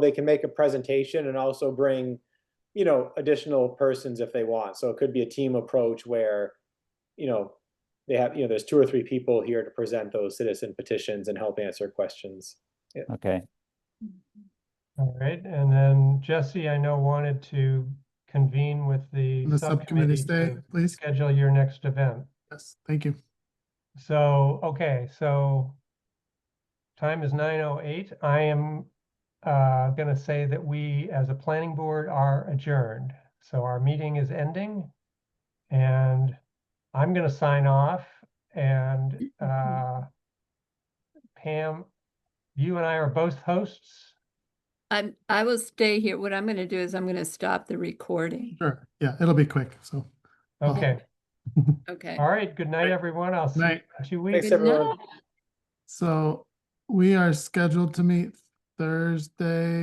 they can make a presentation and also bring, you know, additional persons if they want. So it could be a team approach where, you know, they have, you know, there's two or three people here to present those citizen petitions and help answer questions. Okay, All right, and then Jesse, I know wanted to convene with the The subcommittee stay, to please. Schedule your next event. Yes, thank you. So, okay, so time is nine oh eight. I am uh gonna say that we, as a planning board, are adjourned. So our meeting is ending. And I'm gonna sign off and uh Pam, you and I are both hosts. I'm, I will stay here. What I'm gonna do is I'm gonna stop the recording. Sure. Yeah, it'll be quick. So, Oh. Okay, Okay. all right, good night, everyone. I'll see you night. in two Thanks, weeks. Good everyone. night. So we are scheduled to meet Thursday,